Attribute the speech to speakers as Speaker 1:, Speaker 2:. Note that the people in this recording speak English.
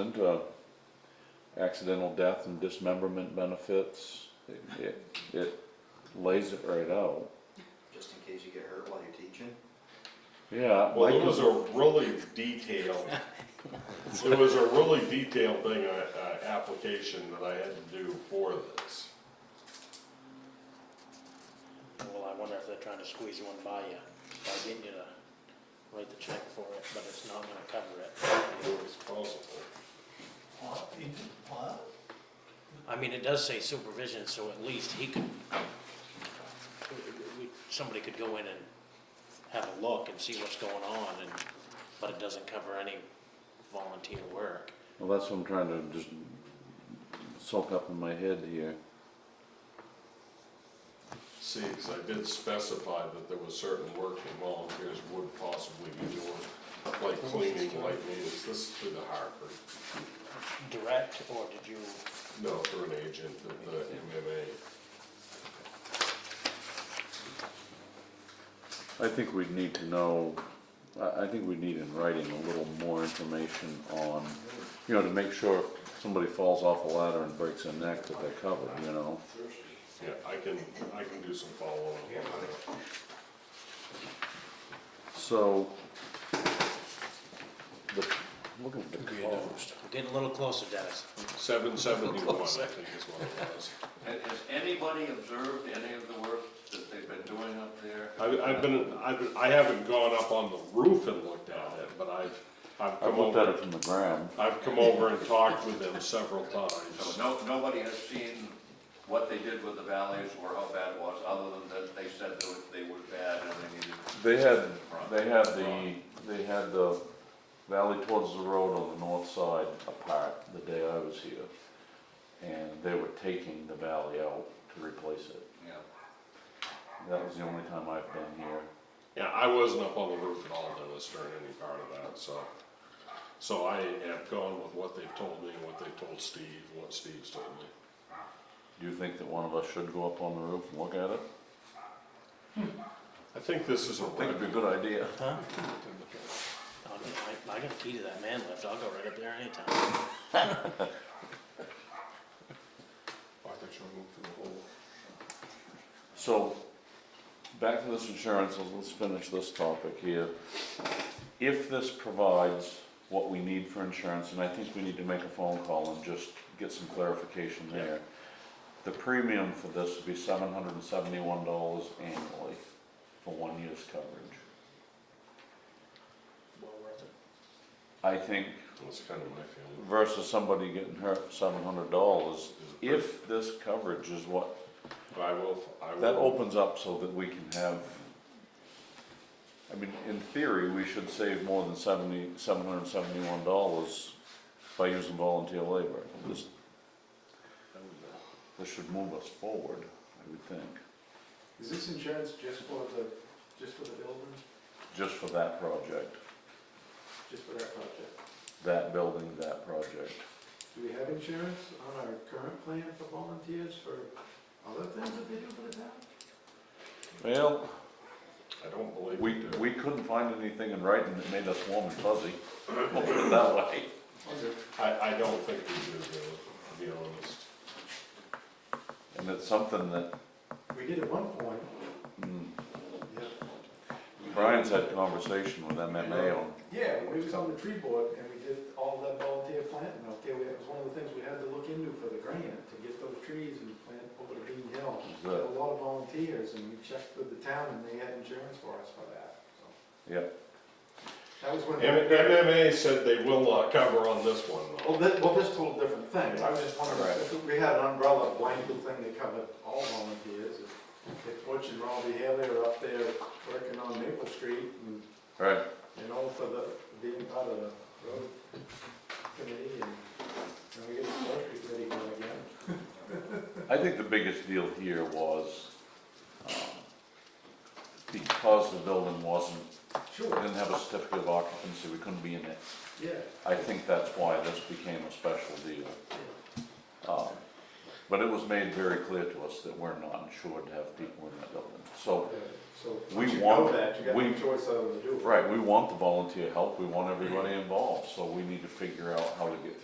Speaker 1: Into uh, accidental death and dismemberment benefits, It- it, it lays it right out.
Speaker 2: just in case you get hurt while you're teaching.
Speaker 1: Yeah,
Speaker 3: Well, it
Speaker 1: Mike
Speaker 3: was
Speaker 1: is-
Speaker 3: a really detailed, it was a really detailed thing, uh, uh, application that I had to do for this.
Speaker 4: Well, I wonder if they're trying to squeeze one by you, by getting you to write the check for it, but it's not gonna cover it.
Speaker 3: It was possible.
Speaker 5: What, he did what?
Speaker 4: I mean, it does say supervision, so at least he could, we- we- somebody could go in and have a look and see what's going on, and, but it doesn't cover any volunteer work.
Speaker 1: well, that's what I'm trying to just soak up in my head here.
Speaker 3: See, because I did specify that there was certain work that volunteers would possibly be doing, like cleaning, like maintenance, this is through the Hartford.
Speaker 4: Direct, or did you,
Speaker 3: No, through an agent of the MMA.
Speaker 1: I think we'd need to know, I, I think we need in writing a little more information on, you know, to make sure if somebody falls off a ladder and breaks their neck that they're covered, you know?
Speaker 3: Yeah, I can, I can do some follow-up on that.
Speaker 1: So, the, look at the cost.
Speaker 4: I'm getting a little closer, Dennis.
Speaker 3: Seven seventy-one, I think is what it was.
Speaker 6: Has has anybody observed any of the work that they've been doing up there?
Speaker 3: I've, I've been, I've, I haven't gone up on the roof and looked at it, but I've, I've
Speaker 1: I
Speaker 3: come
Speaker 1: looked at
Speaker 3: over,
Speaker 1: it from the ground.
Speaker 3: I've come over and talked with them several
Speaker 6: So
Speaker 3: times.
Speaker 6: no, nobody has seen what they did with the valleys or how bad it was, other than that they said they were- they were bad and they needed.
Speaker 1: They had, they had the, they had the valley towards the road on the north side apart the day I was here. And they were taking the valley out to replace it.
Speaker 6: Yeah.
Speaker 1: That was the only time I've been here.
Speaker 3: Yeah, I wasn't up on the roof at all, Dennis, during any part of that, so. So I have gone with what they've told me, what they've told Steve, what Steve's told me.
Speaker 1: Do you think that one of us should go up on the roof and look at it?
Speaker 3: I think this is a
Speaker 1: I think
Speaker 3: red,
Speaker 1: it'd be a good idea.
Speaker 4: Huh? I'll get- I I got a key to that man lift, I'll go right up there anytime.
Speaker 1: So, back to this insurance, let's- let's finish this topic here. If this provides what we need for insurance, and I think we need to make a phone call and just get some clarification there. The premium for this would be seven hundred and seventy-one dollars annually for one year's coverage.
Speaker 4: Well worth it.
Speaker 1: I think
Speaker 3: that's kind of my feeling.
Speaker 1: versus somebody getting hurt for seven hundred dollars,
Speaker 3: It's a pretty-
Speaker 1: if this coverage is what,
Speaker 3: I will, I will.
Speaker 1: that opens up so that we can have, I mean, in theory, we should save more than seventy, seven hundred and seventy-one dollars by using volunteer labor. This, this should move us forward, I would think,
Speaker 7: Is this insurance just for the, just for the building,
Speaker 1: just for that project,
Speaker 7: just for that project?
Speaker 1: that building, that project.
Speaker 7: Do we have insurance on our current plan for volunteers for other things that they do for the town?
Speaker 1: Well,
Speaker 3: I don't believe we
Speaker 1: we,
Speaker 3: do.
Speaker 1: we couldn't find anything in writing that made us warm and fuzzy, we'll put it that way.
Speaker 3: I, I don't think we do, really, to be honest.
Speaker 1: And it's something that
Speaker 7: We did at one point,
Speaker 1: mm,
Speaker 7: yeah.
Speaker 1: Brian's had conversation with MMA on.
Speaker 7: Yeah, we was on the tree board and we did all that volunteer planting out there. That was one of the things we had to look into for the grant, to get those trees and plant over to Green Hill.
Speaker 1: Is
Speaker 7: We had
Speaker 1: that-
Speaker 7: a lot of volunteers and we checked with the town and they had insurance for us for that, so.
Speaker 1: Yeah,
Speaker 7: That was when.
Speaker 3: M- MMA said they will not cover on this one, though.
Speaker 7: Well, this, well, this total different thing, I was just wondering, if we had an umbrella blanket thing that covered all volunteers, if- if Butch and Robbie Haley are up there working on Maple Street, and,
Speaker 1: right.
Speaker 7: you know, for the, being part of the road committee, and, and we get the Maple Street ready going again.
Speaker 1: I think the biggest deal here was, um, because the building wasn't,
Speaker 7: Sure,
Speaker 1: didn't have a certificate of occupancy, we couldn't be in it.
Speaker 7: yeah,
Speaker 1: I think that's why this became a special deal. Um, But it was made very clear to us that we're not insured to have people in that building. So,
Speaker 7: yeah, so,
Speaker 1: We
Speaker 7: once you
Speaker 1: want-
Speaker 7: know that, you got
Speaker 1: we-
Speaker 7: no choice other than to do it.
Speaker 1: right, we want the volunteer help, we want everybody involved, so we need to figure out how to get